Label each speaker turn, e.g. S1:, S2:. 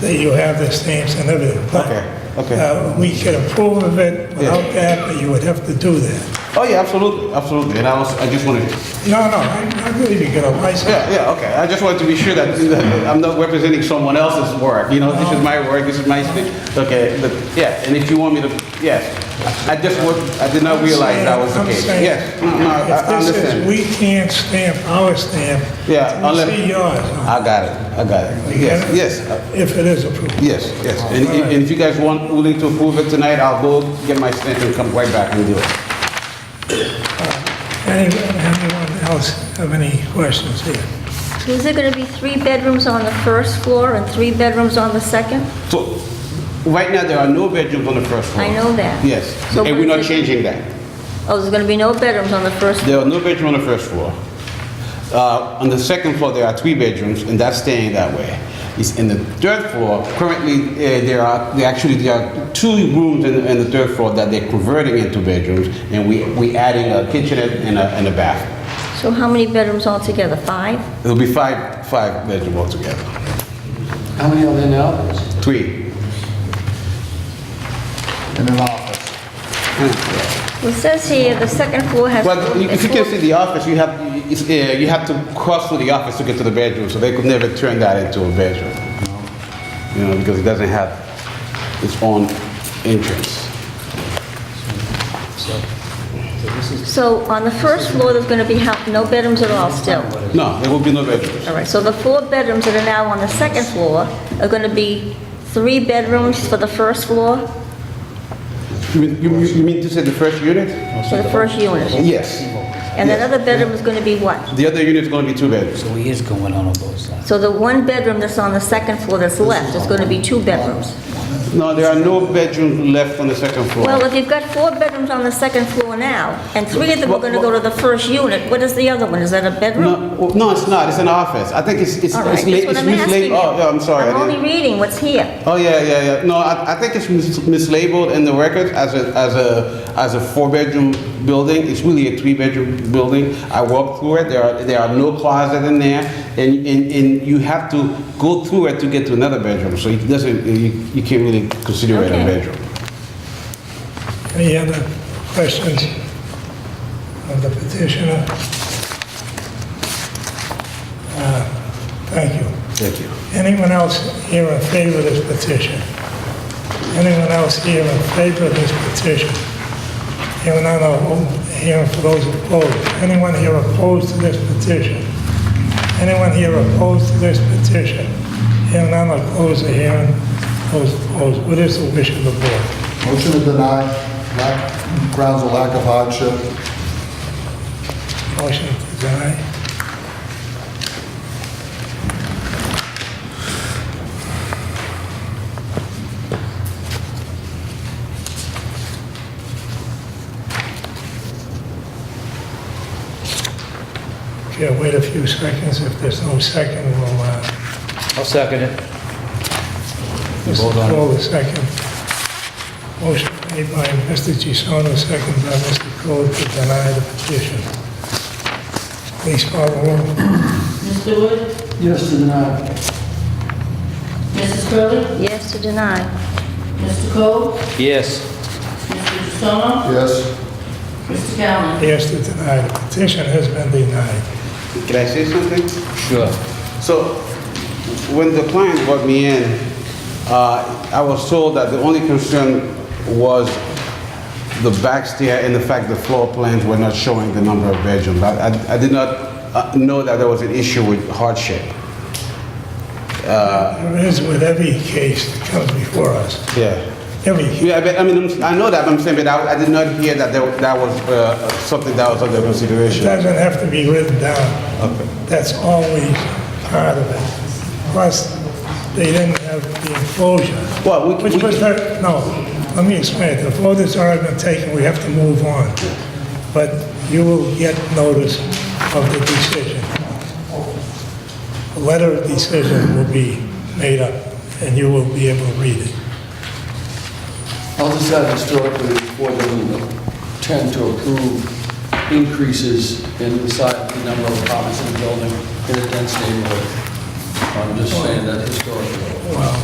S1: that you have the stamps and everything. But,
S2: Okay, okay.
S1: uh, We could approve of it without that, but you would have to do that.
S2: Oh yeah, absolutely, absolutely. And I was, I just wanted,
S1: No, no, I I believe you get a license.
S2: yeah, yeah, okay. I just wanted to be sure that, that I'm not representing someone else's work. You know, this is my work, this is my speech. Okay, but yeah, and if you want me to, yes. I just would, I did not realize that was the
S1: I'm
S2: case.
S1: saying,
S2: Yes, no, no, I I
S1: If this is,
S2: understand.
S1: we can't stamp our stamp.
S2: Yeah,
S1: We
S2: unless-
S1: see yours.
S2: I got it, I got it.
S1: You
S2: Yes,
S1: get it?
S2: yes, uh,
S1: If it is approved.
S2: yes, yes. And if, and if you guys want, willing to approve it tonight, I'll go get my stamp and come right back and do it.
S1: Any- Anyone else have any questions here?
S3: So is there going to be three bedrooms on the first floor and three bedrooms on the second?
S2: So, right now, there are no bedrooms on the first floor.
S3: I know that.
S2: Yes,
S3: So
S2: and we're
S3: what
S2: not
S3: is it-
S2: changing that.
S3: Oh, there's going to be no bedrooms on the first,
S2: There are no bedrooms on the first floor. Uh, On the second floor, there are three bedrooms, and that's staying that way. It's in the third floor, currently, eh, there are, there actually, there are two rooms in in the third floor that they're converting into bedrooms, and we we adding a kitchenette and a and a bath.
S3: so how many bedrooms altogether? Five?
S2: It'll be five, five bedrooms altogether,
S4: How many are there now?
S2: three.
S4: In an office.
S3: Well, it says here the second floor has...
S2: Well, you- if you can see the office, you have, it's, eh, you have to cross through the office to get to the bedroom, so they could never turn that into a bedroom, you know? You know, because it doesn't have its own entrance.
S3: So on the first floor, there's going to be how- no bedrooms at all still?
S2: No, there will be no bedrooms.
S3: All right, so the four bedrooms that are now on the second floor are going to be three bedrooms for the first floor,
S2: You mean, you- you mean to say the first unit?
S3: for the first unit?
S2: Yes.
S3: And
S2: yes.
S3: another bedroom is going to be what?
S2: The other unit is gonna be two bedrooms.
S5: So he is going on on both sides.
S3: So the one bedroom that's on the second floor that's left is going to be two bedrooms?
S2: No, there are no bedrooms left on the second floor.
S3: Well, if you've got four bedrooms on the second floor now, and three of them are going to go to the first unit, what is the other one? Is that a
S2: No,
S3: bedroom?
S2: well, no, it's not, it's an office. I think it's, it's,
S3: All right,
S2: it's
S3: that's
S2: late,
S3: what
S2: it's
S3: I'm asking
S2: mislaid.
S3: you.
S2: Oh, yeah, I'm sorry. I
S3: I'm
S2: didn't-
S3: only reading what's here.
S2: Oh yeah, yeah, yeah. No, I, I think it's mis- mislabeled in the record as a as a as a four bedroom building. It's really a three bedroom building. I walked through it. There are there are no closets in there, and and, and you have to go through it to get to another bedroom. So it doesn't you, you can't really consider it a
S3: Okay.
S2: bedroom.
S1: Any other questions of the petitioner? Uh, Thank you.
S2: Thank you.
S1: Anyone else here in favor of this petition? Anyone else here in favor of this petition? Hearing none, I'll hearing for those opposed. Anyone here opposed to this petition? Anyone here opposed to this petition? Hearing none, I'll close the hearing. Those opposed, what is the wish of the board?
S4: Motion to deny, lack- grounds of lack of hardship.
S1: Motion to deny? Okay, wait a few seconds. If there's no second, we'll, uh,
S5: I'll second it.
S1: Mr.
S5: Hold on.
S1: Cole, the second. Motion made by Mr. Gisano, second by Mr. Cole to deny the petition. Please call the roll.
S6: Mr. Wood?
S4: Yes, to deny.
S6: Mrs. Curley,
S3: Yes to deny.
S6: Mr. Cole?
S5: Yes,
S6: Mr. Jussono?
S4: Yes.
S6: Mr. Galvin?
S1: Yes to deny. The petition has been denied.
S2: Can I say something?
S5: sure.
S2: So when the client brought me in, uh, I was told that the only concern was the back stair and the fact the floor plans were not showing the number of bedrooms. I, I- I did not uh, know that there was an issue with hardship.
S1: There is with every case that comes before us.
S2: Yeah.
S1: Every, case.
S2: Yeah, but, I mean, I'm- I know that, but I'm saying, but I, I did not hear that there, that was uh, something that was under
S1: it
S2: consideration.
S1: doesn't have to be written down. That's always part of it. Plus, they didn't have the enclosure.
S2: Well, we,
S1: Which
S2: we-
S1: was their, no, let me explain it. The vote has already been taken, we have to move on. But you will get notice of the decision. A letter of decision will be made up, and you will be able to read it.
S7: I'll just add historically, before the tend to approve increases in the size, the number of apartments in a building in a dense neighborhood. I'm just saying that historically.